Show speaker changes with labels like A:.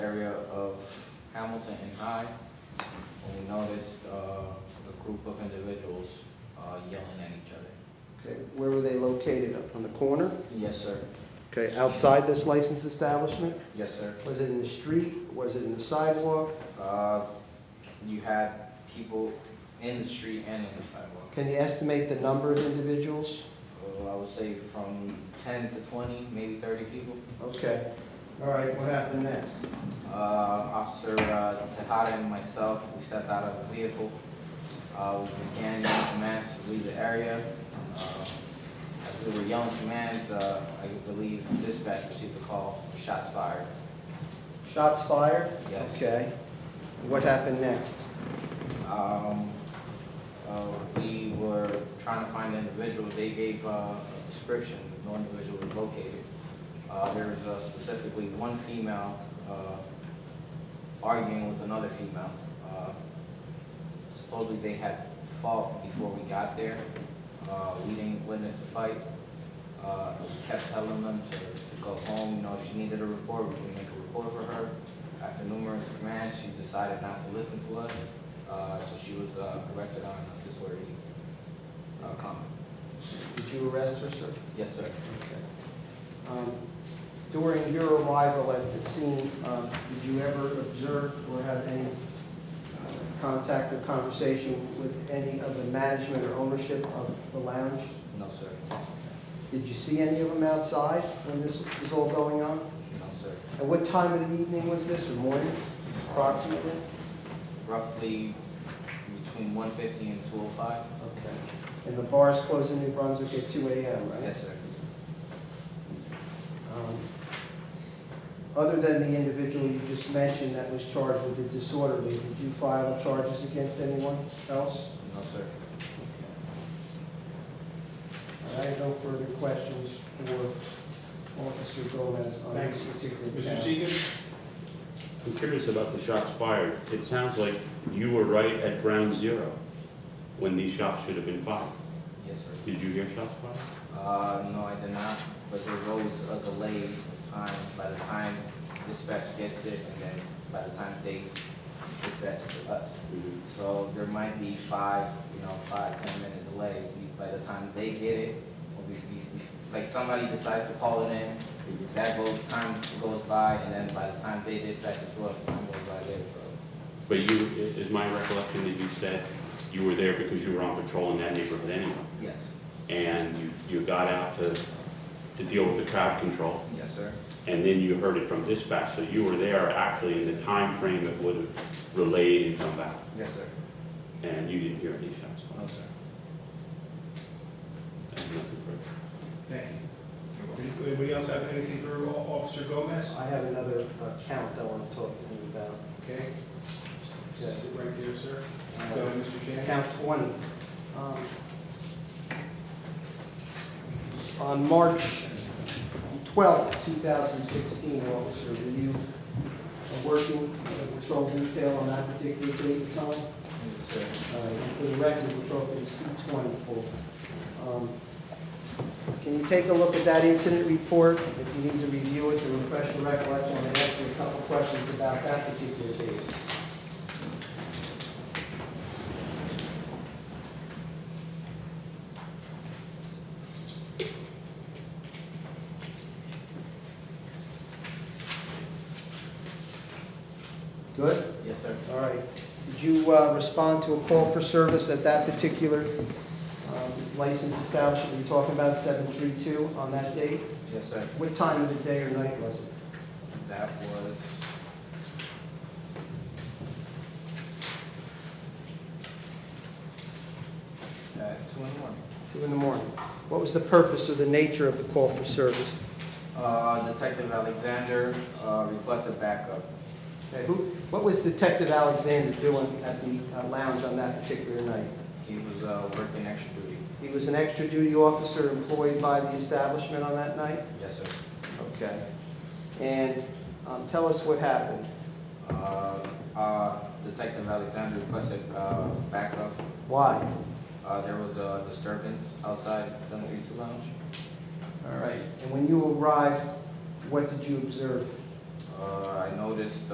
A: Hamilton and I, when we noticed uh, a group of individuals uh, yelling at each other.
B: Okay, where were they located? Up On the corner?
A: Yes, sir.
B: Okay, outside this licensed establishment?
A: Yes, sir.
B: Was it in the street? Was it in the sidewalk?
A: Uh, You had people in the street and in the sidewalk.
B: Can you estimate the number of individuals?
A: Well, Oh, I would say from 10 to 20, maybe 30 people.
B: Okay, all right, what happened next?
A: Uh, Officer uh, Tejada and myself, we stepped out of the vehicle. Uh, We began yelling commands to leave the area. Uh, As we were yelling commands, uh, I believe dispatch received a call, shots fired.
B: Shots fired?
A: Yes.
B: Okay. What happened next?
A: Um, uh, We were trying to find individuals, they gave uh, a description, no individual was located. Uh, There was uh, specifically one female uh, arguing with another female. Uh, Supposedly they had fought before we got there. Uh, We didn't witness the fight. Uh, We kept telling them to to go home, you know, if she needed a report, we would make a report for her. After numerous commands, she decided not to listen to us. Uh, so she was uh, arrested on disorderly uh, comment.
B: Did you arrest her, sir?
A: Yes, sir.
B: Okay. Um, During your arrival at the scene, uh, did you ever observe or have any uh, contact or conversation with any of the management or ownership of the lounge?
A: No, sir.
B: Did you see any of them outside when this was all going on?
A: No, sir.
B: At what time of the evening was this, or morning approximately?
A: Roughly between 150 and 205.
B: Okay. And the bars closed in New Brunswick at 2 AM, right?
A: Yes, sir.
B: Um, Other than the individual you just mentioned that was charged with the disorderly, did you file charges against anyone else?
A: No, sir.
B: I have no further questions for Officer Gomez on this particular
C: Mr.
B: count.
C: Seegan?
D: I'm curious about the shots fired. It sounds like you were right at ground zero when these shots should have been fired.
A: Yes, sir.
D: Did you hear shots fired?
A: Uh, no, I did not. But there's always a delay of time by the time dispatch gets it and then by the time they dispatch it to us. So there might be five, you know, five, ten minute delay We- by the time they get it, or we, we, we- like somebody decides to call it in, that goes, time goes by, and then by the time they dispatch it to us, time goes by there, so.
D: But you, i- is my recollection that you said you were there because you were on patrol in that neighborhood anyway?
A: Yes,
D: And you, you got out to, to deal with the crowd control,
A: yes, sir.
D: and then you heard it from dispatch, so you were there actually in the time frame that would have relayed and come back,
A: Yes, sir.
D: and you didn't hear any shots
A: No,
D: fired?
A: sir.
D: I have nothing further.
C: Thank you. Anybody else have anything for O- Officer Gomez?
B: I have another uh, count I want to talk to you about.
C: Okay.
B: Yeah.
C: Sit right there, sir. Go ahead, Mr. Shannon.
B: Count 20. Um, On March 12, 2016, officer, were you uh, working uh, patrol detail on that particular date and time?
A: Yes, sir.
B: Uh, For the record, we're talking C-20 pool. Um, Can you take a look at that incident report? If you need to review it, to refresh your recollection, I'm going to ask you a couple questions about that particular date. Good?
A: Yes, sir.
B: All right. Did you uh, respond to a call for service at that particular um, licensed establishment you're talking about, 732, on that date?
A: Yes, sir.
B: What time of the day or night was it?
A: That was. At two in the morning.
B: Two in the morning. What was the purpose or the nature of the call for service?
A: Uh, Detective Alexander, uh, requested backup.
B: Okay, Who, what was Detective Alexander doing at the uh, lounge on that particular night?
A: He was, uh, working extra duty.
B: He was an extra duty officer employed by the establishment on that night?
A: Yes, sir.
B: Okay. And um, tell us what happened.
A: Uh, uh, Detective Alexander requested, uh, backup.
B: Why?
A: Uh, there was a disturbance outside seven three two lounge.
B: All right, and when you arrived, what did you observe?
A: Uh, I noticed,